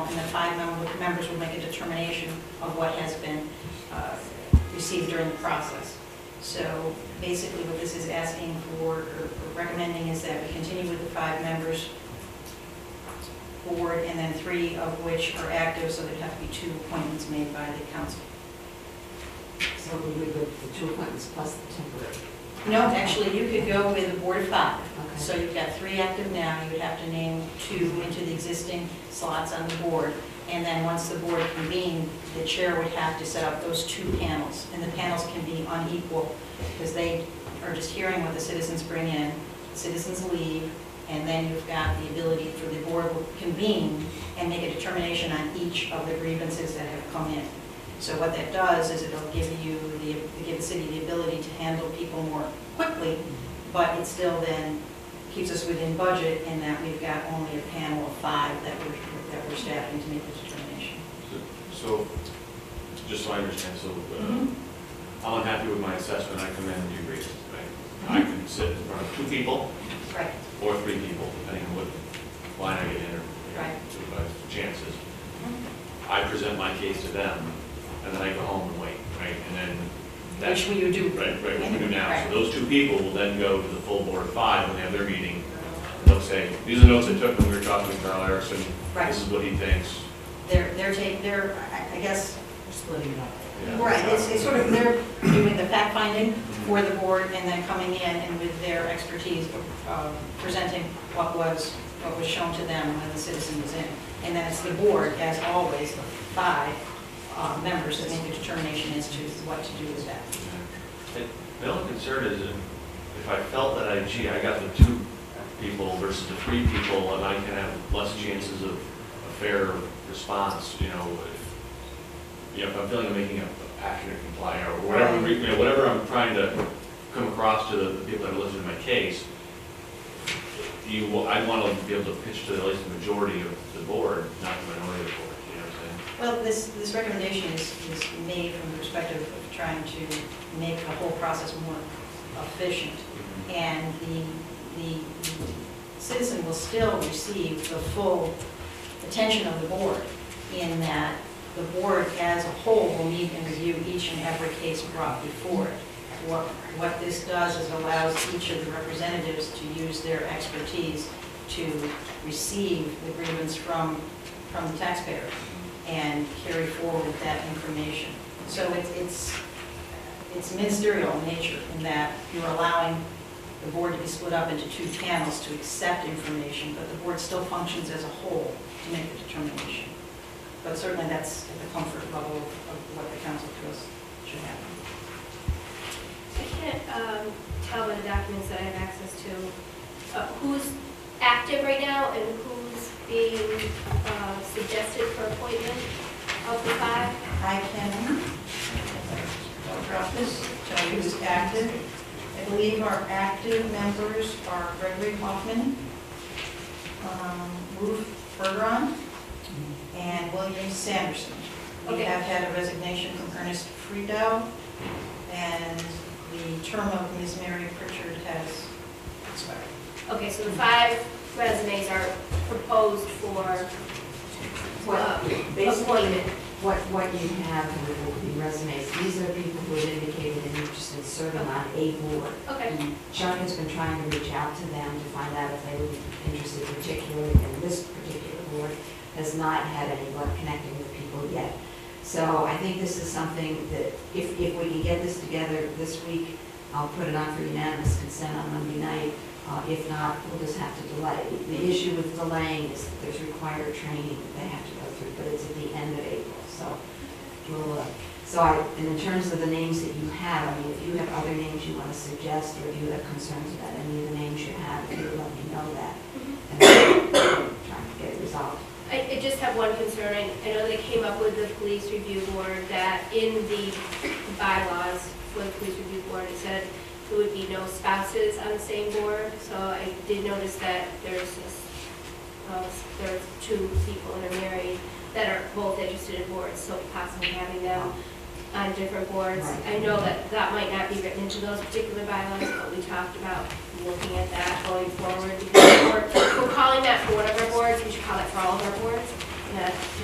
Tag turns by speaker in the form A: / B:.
A: five mem- members will make a determination of what has been uh, received during the process. So basically, what this is asking for, or or recommending, is that we continue with the five members board, and then three of which are active, so there'd have to be two appointments made by the council.
B: So we would go with the two appointments plus the temporary.
A: No, actually, you could go with a board of five.
B: Okay.
A: So you've got three active now, you would have to name two into the existing slots on the board. And then once the board convened, the chair would have to set up those two panels. And the panels can be unequal, because they are just hearing what the citizens bring in, citizens leave, and then you've got the ability for the board to convene and make a determination on each of the grievances that have come in. So what that does is it'll give you, the give the city the ability to handle people more quickly, but it still then keeps us within budget in that we've got only a panel of five that we're, that we're staffing to make the determination.
C: So, just so I understand, so uh,
A: Mm-hmm.
C: I'm unhappy with my assessment, I come in and you raise it, right?
A: Mm-hmm.
C: I can sit in front of two people
A: Right,
C: or three people, depending on what line I get in or
A: Right.
C: to my chances. I present my case to them, and then I go home and wait, right? And then that's,
A: which we do.
C: right, right, what we do now.
A: Right.
C: So those two people will then go to the full board of five when they have their meeting. and They'll say, these are notes I took when we were talking with Carl Erickson.
A: Mm-hmm. Right.
C: This is what he thinks.
A: They're, they're taking, they're, I I guess,
B: We're splitting it up.
C: Yeah.
A: right, it's, it's sort of, they're doing the fact finding for the board and then coming in and with their expertise, um, presenting what was, what was shown to them when the citizen was in. And then it's the board, as always, the five uh, members that make the determination as to what to do with that.
C: And My only concern is if if I felt that I, gee, I got the two people versus the three people, and I can have less chances of a fair response, you know, if, you know, if I'm feeling I'm making a a passionate complaint or whatever,
A: Right.
C: re- you know, whatever I'm trying to come across to the people that are listening to my case, you, wa- I want to be able to pitch to at least the majority of the board, not the minority of the board, you know what I'm saying?
A: Well, this, this recommendation is, is made from the perspective of trying to make the whole process more efficient. And the, the citizen will still receive the full attention of the board in that the board as a whole will meet and review each and every case brought before it. What, what this does is allows each of the representatives to use their expertise to receive the grievance from, from the taxpayer and carry forward that information. So it's, it's, it's ministerial in nature in that you're allowing the board to be split up into two panels to accept information, but the board still functions as a whole to make the determination. But certainly that's at the comfort level of what the council feels should happen.
D: I can't um, tell by the documents that I have access to, uh, who's active right now and who's being uh, suggested for appointment of the five.
A: I can, I'll drop this, tell you who's active. I believe our active members are Gregory Hoffman, um, Ruth Bergeron, and William Sanderson. We
D: Okay.
A: have had a resignation from Ernest Friedel, and the term of Ms. Mary Pritchard has expired.
D: Okay, so the five resumes are proposed for
B: Well,
D: uh,
B: basically,
D: appointment.
B: what, what you have here will be resumes. These are people who have indicated an interest in serving on a board.
D: Okay,
B: Chuck has been trying to reach out to them to find out if they would be interested particularly in this particular board, has not had any luck connecting with people yet. So I think this is something that, if, if we can get this together this week, I'll put it on for unanimous consent on Monday night. Uh, If not, we'll just have to delay. The issue with delaying is that there's required training that they have to go through, but it's at the end of April, so we'll, uh, so I, and in terms of the names that you have, I mean, if you have other names you want to suggest, or if you have concerns about any of the names you have, if you would let me know that. And trying to get it resolved.
D: I I just have one concern. I I know they came up with the police review board that in the bylaws for the police review board, it said there would be no spouses on the same board. So I did notice that there's, this, uh, there's two people that are married that are both interested in boards, so possibly having them on different boards. I know that that might not be written into those particular bylaws, but we talked about looking at that going forward. because We're we're calling that for one of our boards, we should call it for all of our boards. and that